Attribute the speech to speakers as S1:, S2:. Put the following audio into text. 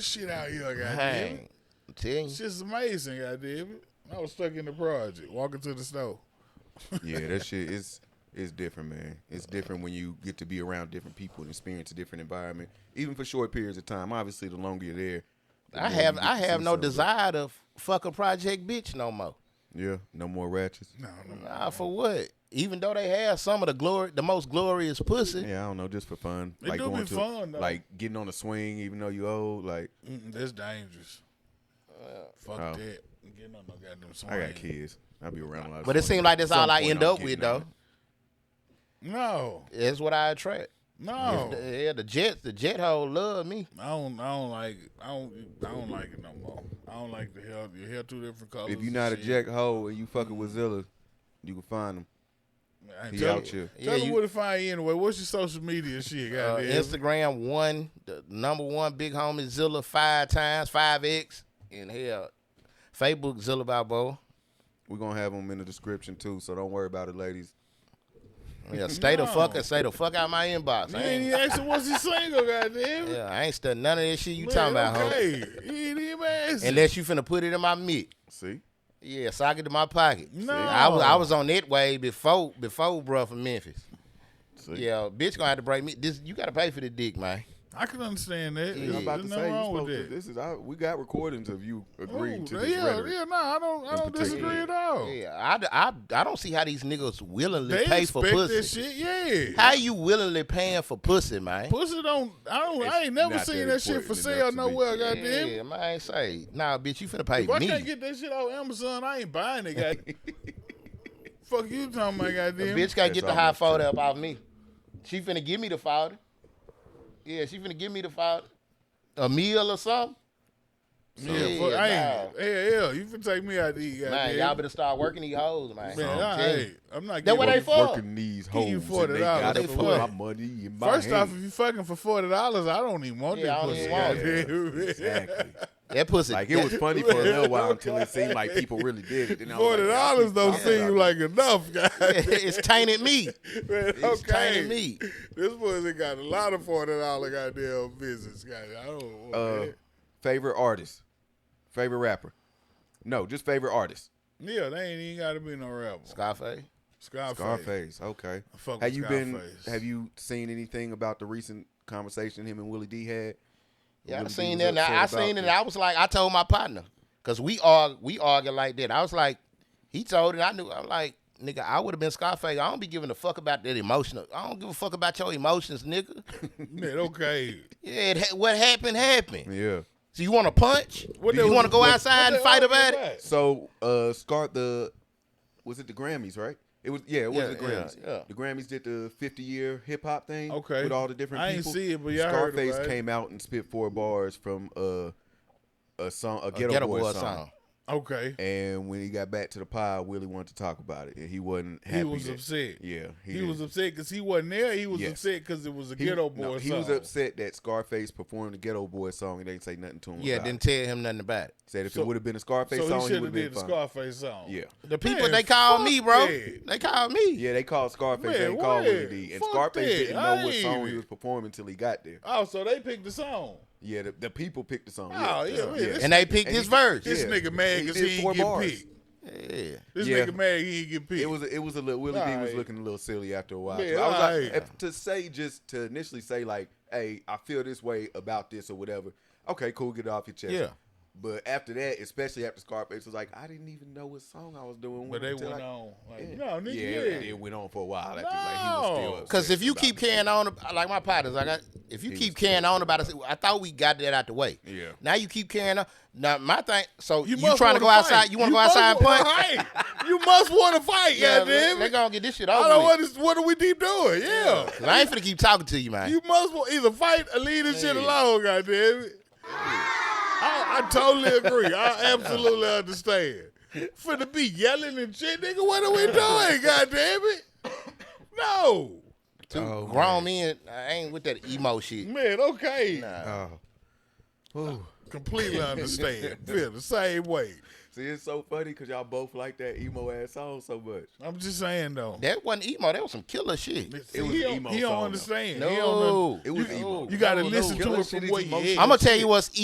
S1: shit out here, goddamn.
S2: Hey, I'm telling
S1: It's
S2: you.
S1: just amazing, goddamn it. I was stuck in the project, walking to the snow.
S3: Yeah, that shit is it's different, man. It's different when you get to be around different people and experience a different environment, even for short periods of time. Obviously, the longer you're there, the
S2: I
S3: more you
S2: have
S3: get
S2: I
S3: to see
S2: have no
S3: something.
S2: desire to fuck a project bitch no more.
S3: Yeah, no more ratchets.
S1: No, no, no.
S3: Mm-hmm.
S2: Nah, for what? Even though they have some of the glory, the most glorious pussy.
S3: Yeah, I don't know, just for fun.
S1: It do be fun, though.
S3: like getting on a swing, even though you old. Like
S1: Mm-mm, that's dangerous. Fuck
S3: oh.
S1: that. Getting on no goddamn swing.
S3: I got kids. I be around a lot. Of
S2: But it
S3: swingers.
S2: seems like that's
S3: At some
S2: all I
S3: point,
S2: end
S3: I'm
S2: up
S3: getting
S2: with,
S3: on
S2: though.
S3: it.
S1: No,
S2: That's what I attract.
S3: Oh.
S1: no.
S2: The- yeah, the Jets, the Jet hole love me.
S1: I don't. I don't like. It. I don't. I don't like it no more. I don't like the hair. Your hair two different colors.
S3: If you're
S1: and
S3: not a
S1: shit.
S3: jack hoe and you fucking with Zilla, you can find him.
S1: I ain't
S3: He
S1: tell
S3: out
S1: you.
S3: here.
S1: Tell
S2: Yeah,
S1: them
S2: you-
S1: where to find you anyway. What's your social media shit?
S2: Uh,
S1: Goddamn.
S2: Instagram one, the number one big homie Zilla five times, five X, and hell, Facebook Zilla Balboa.
S3: We're gonna have him in the description too, so don't worry about it, ladies.
S2: Yeah, stay the fuck
S1: No.
S2: and say the fuck out my inbox.
S1: you
S2: I
S1: ain't
S2: ain't,
S1: even asking what's his single. Goddamn.
S2: yeah, I ain't studying none of that shit you
S1: Man,
S2: talking about, homie.
S1: okay. He ain't even asking.
S2: Unless you finna put it in my mitt.
S3: See,
S2: Yeah, sock it to my pocket.
S1: No.
S2: I was I was on that way before before bruh from Memphis.
S3: see,
S2: Yeah, bitch gonna have to break me. This you gotta pay for the dick, man.
S1: I can understand that.
S2: Yeah,
S3: I'm
S1: There's
S3: about to
S1: nothing
S3: say you
S1: wrong with
S3: supposed to-
S1: that. Oh,
S3: this is I, we got recordings of you agreeing
S1: Ooh,
S3: to this
S1: yeah,
S3: rhetoric.
S1: yeah, no, I don't, I don't
S3: particular.
S1: disagree at all.
S2: Yeah, I, I, I don't see how these niggas willingly
S1: Oh. They
S2: pay
S1: expect
S2: for
S1: that
S2: pussy.
S1: shit, yeah.
S2: How you willingly paying for pussy, man?
S1: Pussy don't, I don't, I
S3: It's
S1: ain't never
S3: not
S1: seen
S3: that
S1: that shit for
S3: important enough
S1: sale
S3: to be-
S1: nowhere,
S3: Yeah.
S1: goddamn.
S2: Yeah, man, I ain't say, nah, bitch, you finna pay
S1: If I
S2: me.
S1: can't get that shit off Amazon, I ain't buying it, goddamn. Fuck you talking about,
S2: The
S1: goddamn.
S2: bitch can't
S3: That's
S2: get the high
S3: almost
S2: photo up off me. She finna give me the photo. Yeah, she finna give me the photo. A meal or something.
S1: yeah, fuck, I ain't,
S2: nah.
S1: hell, hell, you can take me out to eat, goddamn.
S2: Man, y'all better start working these hoes, man.
S1: Man,
S2: I'm
S1: I,
S2: telling you.
S1: hey, I'm not
S2: That what
S1: giving-
S2: they for?
S3: Working these
S1: Give you
S3: hoes, and
S1: $40
S3: they got
S1: for
S3: it for
S1: what?
S3: my money in my
S1: First off,
S3: hand.
S1: if you fucking for forty dollars, I don't even want
S2: Yeah,
S1: that
S2: I don't
S1: pussy.
S2: even want
S3: it.
S1: goddamn.
S3: exactly.
S2: That pussy.
S3: Like it was funny for a little while until it seemed like people really did it. And I was
S1: Forty
S3: like, y'all
S1: dollars
S3: keep
S1: don't
S3: talking
S1: seem
S3: about
S1: like enough, guys.
S2: it's tainted me. It's
S1: okay.
S2: tainted me.
S1: This pussy got a lot of forty dollar goddamn business, guys. I don't want
S3: uh,
S1: that.
S3: favorite artist, favorite rapper. No, just favorite artist.
S1: Yeah, they ain't even gotta be no rapper.
S2: Scarface.
S1: Scarface.
S3: Scarface. Okay.
S1: fuck with
S3: have you
S1: Scarface.
S3: been? Have you seen anything about the recent conversation him and Willie D had?
S2: Yeah, I
S3: Willie D
S2: seen
S3: was
S2: that. and I, I
S3: upset about
S2: seen it.
S3: the-
S2: And I was like, I told my partner, cause we argue, we argue like that. I was like, he told it. I knew. I'm like, nigga, I would have been Scarface. I don't be giving a fuck about that emotional. I don't give a fuck about your emotions, nigga.
S1: Man, okay.
S2: yeah, it, ha- what happened happened.
S3: Yeah.
S2: So you want to punch?
S1: What
S2: you
S1: they-
S2: want to go
S1: what-
S2: outside
S1: what
S2: and
S1: they
S2: fight
S1: argue
S2: about it?
S3: So, uh, Scar the was it the Grammys, right? It was yeah, it was
S2: Yeah,
S3: the
S2: yeah,
S3: Grammys.
S2: yeah.
S3: The Grammys did the 50 year hip hop thing.
S1: Okay.
S3: With all the different
S1: I ain't
S3: people.
S1: see it, but yeah, I heard
S3: Scarface
S1: about it.
S3: came out and spit four bars from uh, a song, a Ghetto,
S2: Get a
S3: Boy,
S2: boy
S3: song.
S2: song.
S1: Okay.
S3: And when he got back to the pod, Willie wanted to talk about it, and he wasn't happy.
S1: He was
S3: that-
S1: upset.
S3: Yeah,
S1: He,
S3: did.
S1: was upset because he wasn't there. He was
S3: Yes.
S1: upset because it was a
S3: He-
S1: ghetto boy.
S3: no, he was
S1: song.
S3: upset that Scarface performed the Ghetto Boy song and they didn't say nothing to him.
S2: Yeah,
S3: about
S2: didn't
S3: it.
S2: tell him nothing about it.
S3: said if
S1: so-
S3: it would have been a Scarface
S1: So
S3: song,
S1: he
S3: he
S1: should have
S3: would have been
S1: did the
S3: fun.
S1: Scarface song.
S3: Yeah.
S2: The people
S1: Man,
S2: they called
S1: fuck
S2: me, bro.
S1: that.
S2: They called me.
S3: Yeah, they called Scarface.
S1: Man,
S3: they didn't call Willie
S1: what?
S3: D. And
S1: Fuck
S3: Scarface
S1: that.
S3: didn't know what
S1: I
S3: song
S1: ain't-
S3: he was performing until he got there.
S1: Oh, so they picked the song.
S3: Yeah, the, the people picked the song.
S1: Oh, yeah, man, this-
S2: And they picked his
S3: he-
S2: verse.
S1: This
S3: Yeah.
S1: nigga mad
S3: He
S1: because
S3: did
S1: he,
S3: four
S1: ain't get
S3: bars.
S1: picked.
S2: Yeah.
S1: This
S3: Yeah.
S1: nigga mad he ain't get picked.
S3: It was a, it was a little Willie D was
S1: Alright.
S3: looking a little silly after a while.
S1: Man,
S3: too. I was like,
S1: alright.
S3: if- to say just to initially say like, hey, I feel this way about this or whatever. Okay, cool, get it off your chest.
S2: Yeah.
S3: But after that, especially after Scarface was like, I didn't even know what song I was doing.
S1: but they
S3: until
S1: went
S3: I-
S1: on. Like,
S3: Yeah.
S1: no, nigga,
S3: yeah,
S1: yeah.
S3: It, it went on for a while. After, like, he was still
S1: No.
S3: upset
S2: Because if you
S3: about
S2: keep
S3: it.
S2: carrying on, like my partners, like I, if you keep carrying on about it, I thought we got that out the way.
S3: Yeah.
S2: Now you keep carrying on. Now my thing. So you,
S1: must
S2: trying to
S1: wanna
S2: go
S1: fight.
S2: outside? You want to go
S1: must
S2: outside and
S1: wanna
S2: punch?
S1: fight. you must want to fight,
S2: Yeah,
S1: yeah,
S2: they,
S1: damn
S2: they
S1: it.
S2: gonna get this shit
S1: I
S2: over.
S1: don't
S2: with.
S1: want to. What are we deep doing? Yeah.
S2: 'Cause I ain't finna keep talking to you, man.
S1: You must want either fight or leave this shit
S2: Yeah.
S1: alone, goddamn it. I, I totally agree. I absolutely understand. For to be yelling and shit, nigga, what are we doing, goddamn it? No.
S2: Two
S1: Oh,
S2: grown men, I ain't with that emo shit.
S1: Man, okay.
S3: Oh. Whew.
S1: Completely understand. Feel the same way.
S3: See, it's so funny because y'all both like that emo ass song so much.
S1: I'm just saying though.
S2: That wasn't emo. That was some killer shit.
S1: See,
S3: was
S1: he
S3: an
S1: don't,
S3: emo
S1: he don't
S3: song, though.
S1: understand. He don't un-
S2: No,
S3: It was
S1: you,
S3: emo.
S1: You gotta
S3: No, no,
S1: listen to
S3: killer
S1: it
S3: shit
S1: from
S3: is
S1: where you
S3: emotional.
S1: at.
S2: I'm gonna tell you what's